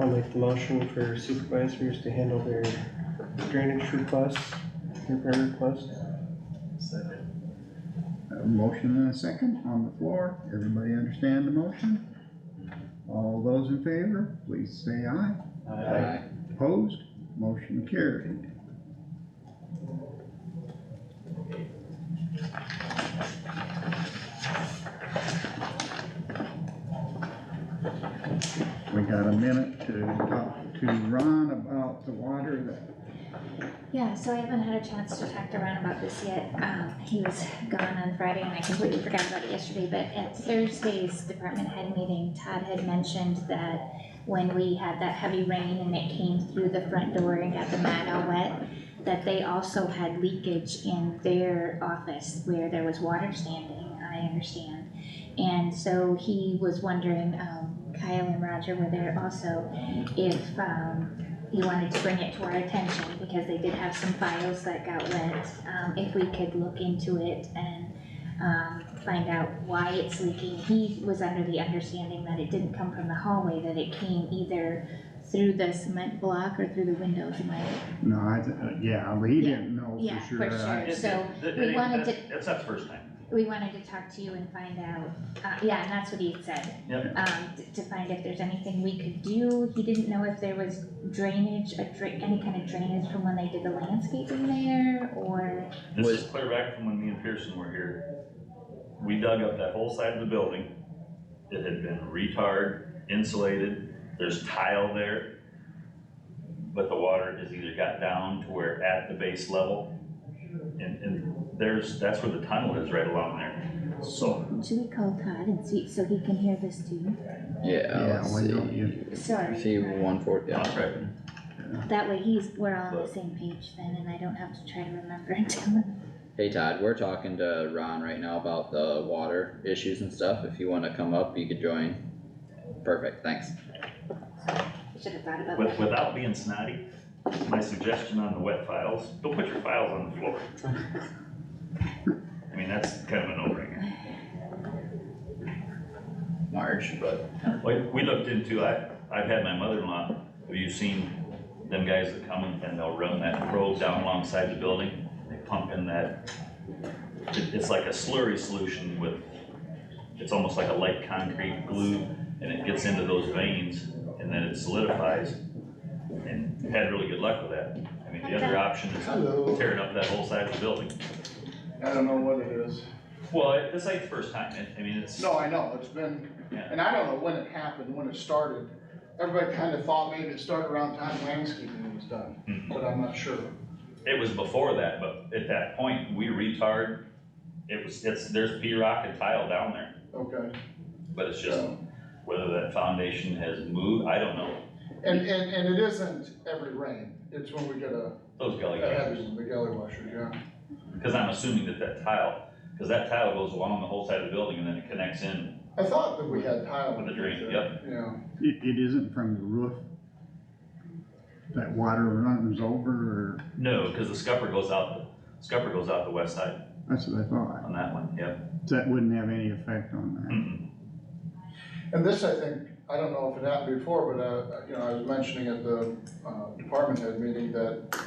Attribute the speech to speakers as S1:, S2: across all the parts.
S1: I'll make the motion for supervisors to handle their drainage requests, repair requests.
S2: I have a motion and a second on the floor. Everybody understand the motion? All those in favor, please say aye.
S3: Aye.
S2: Opposed? Motion carried. We got a minute to talk to Ron about the water that,
S4: Yeah, so I haven't had a chance to talk to Ron about this yet. Um, he was gone on Friday and I completely forgot about it yesterday, but at Thursday's department head meeting, Todd had mentioned that when we had that heavy rain and it came through the front door and got the mat all wet, that they also had leakage in their office where there was water standing, I understand. And so he was wondering, um, Kyle and Roger were there also, if, um, he wanted to bring it to our attention because they did have some files that got wet. Um, if we could look into it and, um, find out why it's leaking. He was under the understanding that it didn't come from the hallway, that it came either through the cement block or through the windows, am I?
S2: no, I, yeah, we didn't know
S4: Yeah,
S2: for
S4: for
S2: sure.
S4: sure.
S3: It-
S4: So,
S3: it- it
S4: we
S3: ain't-
S4: wanted
S3: that's- That's not the first time.
S4: We wanted to talk to you and find out, uh, yeah, and that's what he had said.
S3: Yep.
S4: Um, t- to find if there's anything we could do. He didn't know if there was drainage, a dra- any kind of drainage from when they did the landscaping there or,
S3: This
S5: Was-
S3: is clear back from when me and Pearson were here. We dug up that whole side of the building. It had been retard, insulated, there's tile there. But the water has either got down to where at the base level. And, and there's, that's where the tunnel is right along there. So
S4: should we call Todd and see, so he can hear this too?
S5: Yeah,
S2: Yeah,
S5: let's
S2: we know
S5: see.
S2: you,
S4: Sorry.
S5: See, one fourth, yeah.
S3: That's right.
S4: That way he's, we're all on the same page then and I don't have to try to remember and tell him.
S5: Hey Todd, we're talking to Ron right now about the water issues and stuff. If you wanna come up, you could join. Perfect, thanks.
S4: Should have thought about
S3: with,
S4: that.
S3: without being snotty, my suggestion on the wet files, go put your files on the floor. I mean, that's kind of an no-brainer.
S5: Marge, but
S3: We, we looked into, I, I've had my mother-in-law, have you seen them guys that come and they'll run that road down alongside the building? They pump in that, it- it's like a slurry solution with, it's almost like a light concrete glue and it gets into those veins and then it solidifies. And we had really good luck with that. I mean, the other option is tearing up that whole side of the building.
S6: I don't know what it is.
S3: Well, it- this ain't the first time, I- I mean, it's.
S6: No, I know, it's been,
S3: Yeah.
S6: and I don't know when it happened, when it started. Everybody kind of thought maybe it started around time landscaping was done,
S3: Mhm.
S6: but I'm not sure.
S3: It was before that, but at that point, we retard, it was, it's, there's P rock and tile down there,
S6: Okay.
S3: but it's just whether that foundation has moved, I don't know.
S6: And, and, and it isn't every rain. It's when we get a,
S3: Those
S6: a
S3: gully
S6: heavy,
S3: gutters,
S6: one, the gully washer, yeah.
S3: cause I'm assuming that that tile, cause that tile goes along the whole side of the building and then it connects in.
S6: I thought that we had tile.
S3: With the drain,
S6: yep. Yeah.
S2: it, it isn't from the roof. That water runs over or,
S3: No, cause the scupper goes out, the scupper goes out the west side
S2: that's what I thought.
S3: on that one, Mm-hmm. yep.
S2: That wouldn't have any effect on
S3: Mm-mm.
S6: And this, I think, I don't know if it happened before, but, uh, you know, I was mentioning at the, uh, department head meeting that,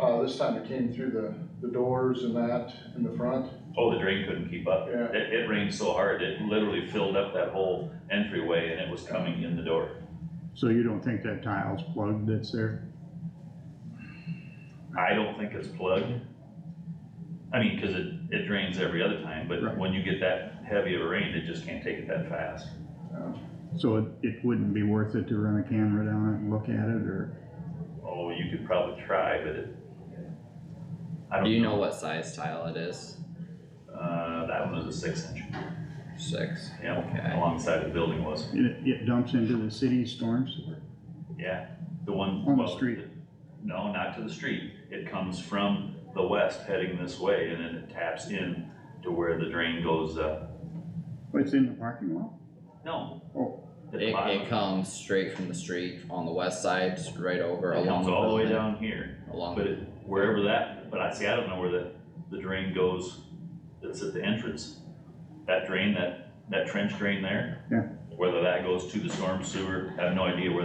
S6: uh, this time it came through the, the doors and that in the front,
S3: Oh, the drain couldn't keep up.
S6: yeah.
S3: It, it rained so hard, it literally filled up that whole entryway and it was coming in the door.
S2: that. So you don't think that tile's plugged that's there?
S3: I don't think it's plugged. I mean, cause it, it drains every other time, but
S2: Right.
S3: when you get that heavy of a rain, it just can't take it that fast.
S2: So it, it wouldn't be worth it to run a camera down it and look at it or?
S3: Oh, you could probably try, but it. I
S5: do
S3: don't
S5: you know
S3: know.
S5: what size tile it is?
S3: Uh, that one was a six inch,
S5: Six,
S3: yeah,
S5: Okay.
S3: alongside the building was,
S2: It, it dumps into the city storm sewer?
S3: yeah, the one.
S2: On the
S3: well,
S2: street.
S3: No, not to the street. It comes from the west heading this way and then it taps in to where the drain goes up.
S2: Oh, It's in the parking lot?
S3: No.
S2: Oh.
S3: At the
S5: It,
S3: bottom.
S5: it comes straight from the street on the west side, just right over
S3: It
S5: along
S3: comes
S5: the
S3: all the way
S5: building.
S3: down here.
S5: Along,
S3: But it, wherever that, but I see, I don't know where the, the drain goes, that's at the entrance. That drain, that, that trench drain there.
S2: Yeah.
S3: Whether that goes to the storm sewer, I have no idea where